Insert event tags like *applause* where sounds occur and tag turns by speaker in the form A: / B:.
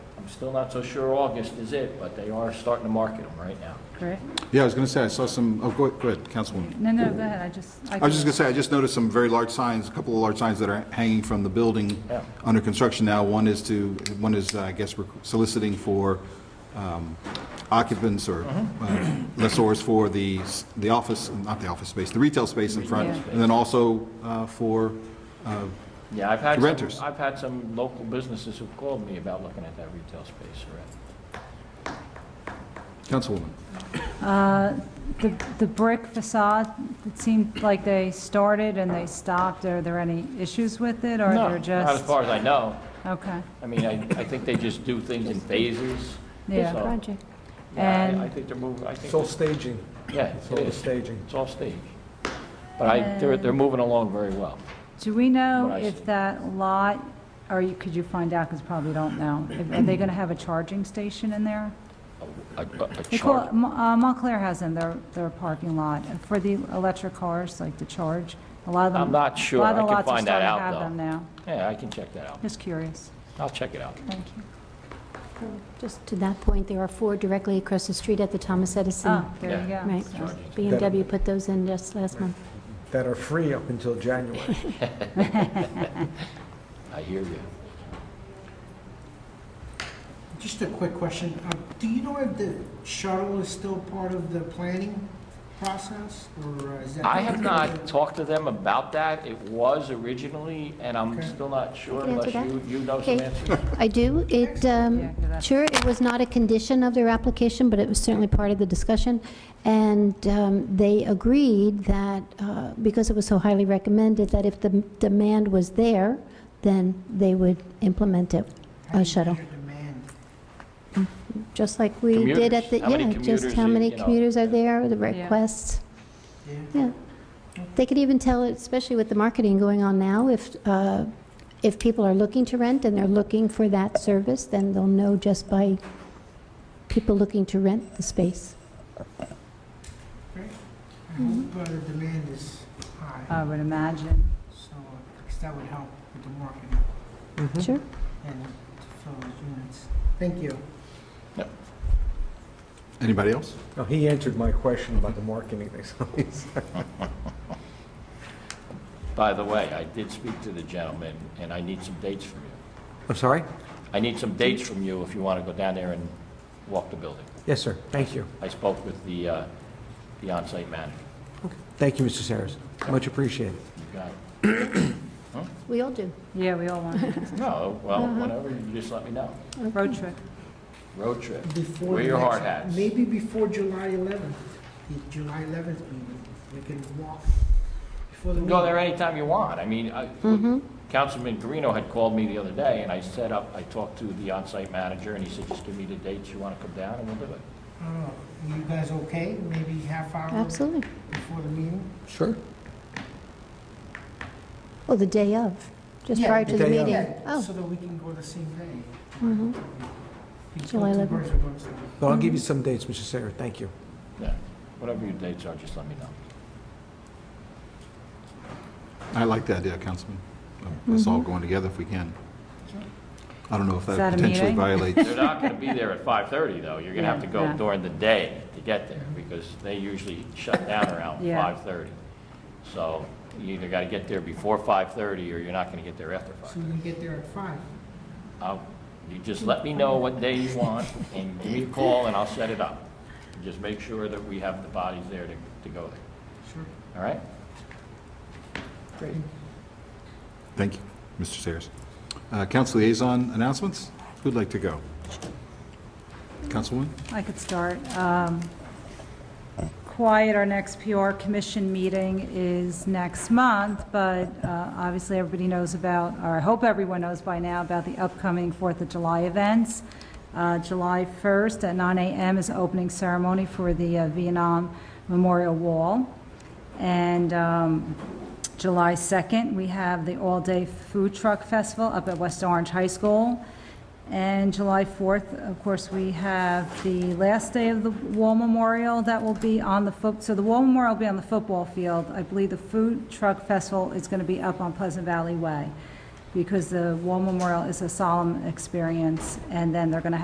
A: Still not so sure August is it, but they are starting to market them right now.
B: correct?
C: Yeah, I was going to say, I saw some, oh, go go ahead, Councilwoman.
B: No, no, go ahead, I just.
C: I was just going to say, I just noticed some very large signs, a couple of large signs that are hanging from the building
A: Yeah.
C: under construction now. One is to, one is, I guess, we're soliciting for um, occupants or uh, lessors for the, s- the office, not the office space, the retail space in front,
B: Yeah.
C: and then also uh, for, uh,
A: Yeah, I've had
C: Renters.
A: some, I've had some local businesses who've called me about looking at that retail space already.
C: Councilwoman.
B: Uh, The the brick facade, it seemed like they started and they stopped. Are there any issues with it, or
A: No,
B: they're just?
A: Not as far as I know.
B: Okay,
A: I mean, I, I think they just do things in phases.
B: yeah.
A: So,
D: project.
A: Yeah,
B: And-
A: I- I think they're moving, I think,
E: It's all staging,
A: yeah,
E: it's
A: it
E: all the
A: is.
E: staging.
A: It's all staged. But I, they're, they're moving along very well.
B: Do we know
A: What I see.
B: if that lot, or you- could you find out, because probably don't know, if- are they going to have a charging station in there?
A: A, a- a
B: They call,
A: chart-
B: it- Mo- uh, Montclair has in their, their parking lot for the electric cars, like to charge. A lot of them.
A: I'm not sure.
B: A lot
A: I
B: of
A: can
B: the lots are
A: find that
B: starting to
A: out,
B: have
A: though.
B: them now.
A: Yeah, I can check that out.
B: Just curious.
A: I'll check it out.
B: Thank you.
D: Uh, Just to that point, there are four directly across the street at the Thomas Edison.
B: Ah, there you go.
D: Right.
B: So-
A: Charging.
D: B and W put those in just last month.
E: that are free up until January.
A: I hear you.
F: Just a quick question. Uh, Do you know if the shuttle is still part of the planning process, or uh, is that?
A: I have not talked to them about that. It was originally, and I'm still not sure
D: Can I
A: unless
D: answer
A: you, you know some
D: Okay.
A: answers.
D: I do. It,
B: Yeah,
D: um,
B: that's-
D: sure, it was not a condition of their application, but it was certainly part of the discussion. And um, they agreed that, uh, because it was so highly recommended, that if the m- demand was there, then they would implement it,
F: How do
D: a
F: you
D: shuttle,
F: measure demand?
D: just like we did at the,
A: Commuters. How many
D: yeah, just
A: commuters
D: how
A: you-
D: many
A: you know.
D: commuters are there, the
B: Yeah.
D: requests.
F: Yeah.
D: Yeah. They could even tell, especially with the marketing going on now, if, uh, if people are looking to rent and they're looking for that service, then they'll know just by people looking to rent the space.
F: Great. I
D: Mm-hmm.
F: hope uh, the demand is high,
D: Uh,
B: I would imagine.
F: so, uh, 'cause that would help with the marketing
D: Sure.
F: and to fill those units. Thank you.
C: Anybody else?
E: Now, he answered my question about the marketing thing, *laughs* so he's-
A: By the way, I did speak to the gentleman, and I need some dates from you.
E: I'm sorry?
A: I need some dates from you if you want to go down there and walk the building.
E: Yes, sir, thank you.
A: I spoke with the, uh, the onsite manager.
E: Thank you, Mr. Sayers, much appreciated.
A: You got it?
D: We all do.
B: Yeah, we all want
A: *laughs*
B: it.
A: No, well,
D: Uh-huh.
A: whenever, you just let me know.
B: road trip.
A: Road trip.
F: Before
A: Wear
F: the
A: your
F: next-
A: hard hats.
F: Maybe before July 11th, the July 11th meeting, we can walk before the
A: You can
F: meeting.
A: go there anytime you want. I mean, I-
B: Mm-hmm.
A: Councilman Guarino had called me the other day, and I set up, I talked to the on-site manager, and he said, just give me the dates you want to come down, and we'll do it.
F: I don't know. Oh, Are you guys okay? Maybe half hour
D: Absolutely.
F: before the meeting?
E: Sure.
D: Oh, the day of, just
F: Yeah,
D: prior to the
E: day of.
D: meeting.
F: Yeah,
D: Oh,
F: so that we can go the same day.
D: mhm.
F: These
D: July
F: two
D: 11th.
F: birds are going to-
E: But I'll give you some dates, Mr. Sayers, thank you.
A: Yeah, whatever your dates are, just let me know.
C: I like the idea, Councilman. Oh, Let's all go in together if we can. I don't know if
B: Mm-hmm. Is
C: that
B: that a
C: potentially
B: meeting?
C: violates
A: They're not going to be there at 5:30, though. You're going to have to go
B: Yeah.
A: during the day to get there, because they usually shut down around
B: Yeah.
A: 5:30. So you either got to get there before 5:30, or you're not going to get there after
F: So
A: 5.
F: we can get there at five.
A: I'll- You just let me know what day you want, and give me a call, and I'll set it up. Just make sure that we have the bodies there to to go there,
F: Sure.
A: all right?
F: Great.
C: Thank you, Mr. Sayers. Uh, Council liaison announcements? Who'd like to go? Councilwoman?
B: I could start. Um, Quiet, our next PR commission meeting is next month, but uh, obviously everybody knows about, or I hope everyone knows by now, about the upcoming Fourth of July events. Uh, July 1st at 9 a.m. is the opening ceremony for the uh, Vietnam Memorial Wall. And um, July 2nd, we have the all-day food truck festival up at West Orange High School. And July 4th, of course, we have the last day of the Wall Memorial that will be on the foot, so the Wall Memorial will be on the football field. I believe the Food Truck Festival is going to be up on Pleasant Valley Way because the Wall Memorial is a solemn experience, and then they're going to